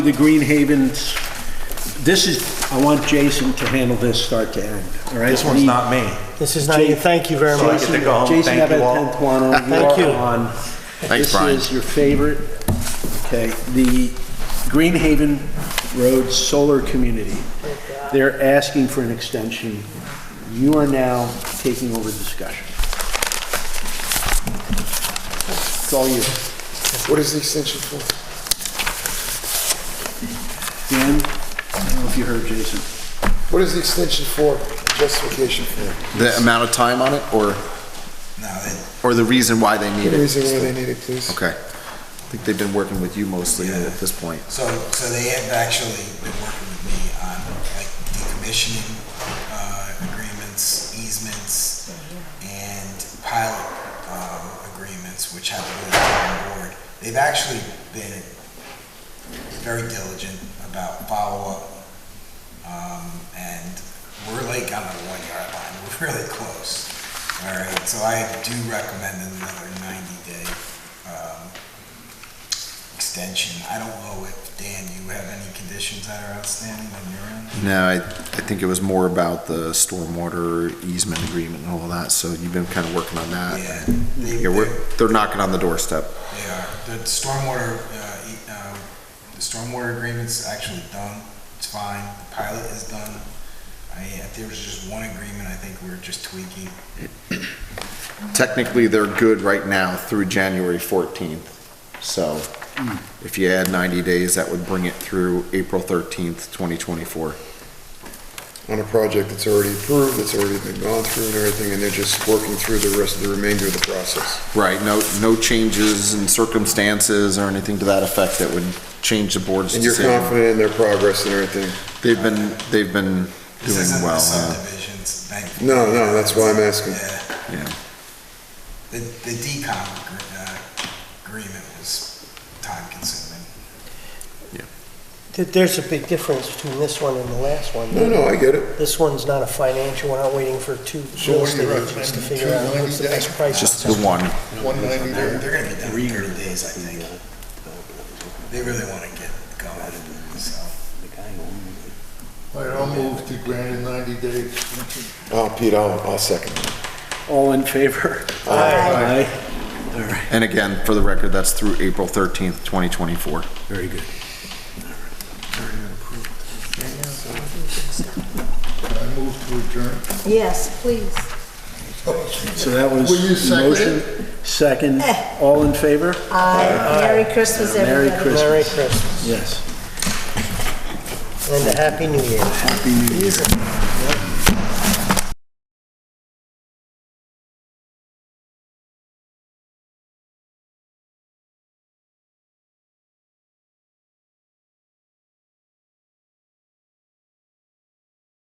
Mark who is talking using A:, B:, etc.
A: The Green Havens, this is, I want Jason to handle this start to end, all right?
B: This one's not me.
C: This is not you, thank you very
B: So I
C: much.
B: get to go home.
A: Jason
B: Thank you all.
A: Abbott, Tantuano,
C: Thank
A: you
C: you.
A: are on.
D: Thanks, Brian.
A: This is your favorite, okay, the Green Haven Road Solar Community. They're asking for an extension. You are now taking over discussion. It's all you.
E: What is the extension for?
A: Dan, I don't know if you heard Jason.
E: What is the extension for? Justification for?
D: The amount of time on it, or, or the reason why they need
E: The
D: it?
E: reason why they need it, please.
D: Okay. I think they've been working with you mostly at this point.
F: So, so they have actually been working with me on like decommissioning uh, agreements, easements, and pilot um, agreements, which have to go to the town board. They've actually been very diligent about follow-up, um, and we're like on the one-yard line, we're really close. All right, so I do recommend another 90-day um, extension. I don't know if, Dan, you have any conditions that are outstanding on your end?
D: No, I, I think it was more about the stormwater easement agreement and all that, so you've been kind of working on
F: Yeah,
D: that.
F: they,
D: Yeah,
F: they're-
D: we're, they're knocking on the doorstep.
F: they are. The stormwater, uh, e- uh, the stormwater agreement's actually done. It's fine. The pilot is done. I, if there was just one agreement, I think we're just tweaking.
D: Technically, they're good right now through January 14th. So if you add 90 days, that would bring it through April 13th, 2024.
E: On a project that's already approved, that's already been gone through and everything, and they're just working through the rest of the remainder of the process.
D: Right, no, no changes in circumstances or anything to that effect that would change the board's
E: And you're
D: decision.
E: confident in their progress and everything?
D: They've been, they've been
F: This
D: doing
F: isn't the
D: well. uh, yeah.
F: subdivisions, thankfully.
E: No, no, that's why I'm asking.
F: Yeah.
D: Yeah.
F: The, the decom agree- uh, agreement was time consuming.
C: Th- There's a big difference between this one and the last one.
E: No, no, I get it.
C: This one's not a financial, we're not waiting for two
G: So
C: real
G: what do you
C: estate agents to
G: recommend,
C: figure out what's the best price.
D: Just the one.
G: One ninety
F: They're,
G: there.
F: they're gonna be done in thirty days, I think. They really wanna get going, so.
G: All right, I'll move to grant a ninety day extension.
E: Oh, Pete, I'll, I'll second.
A: All in favor?
C: Aye.
A: Aye. All right,
D: And again, for the record, that's through April 13th, 2024.
A: very good.
G: I move to adjourn.
H: Yes, please.
A: So that was
G: Will you second
A: motion, second, all in favor?
H: Aye. Merry Christmas,
A: Merry
H: everybody.
A: Christmas.
C: Merry Christmas
A: Yes.
C: and a Happy New Year.
A: Happy New Year.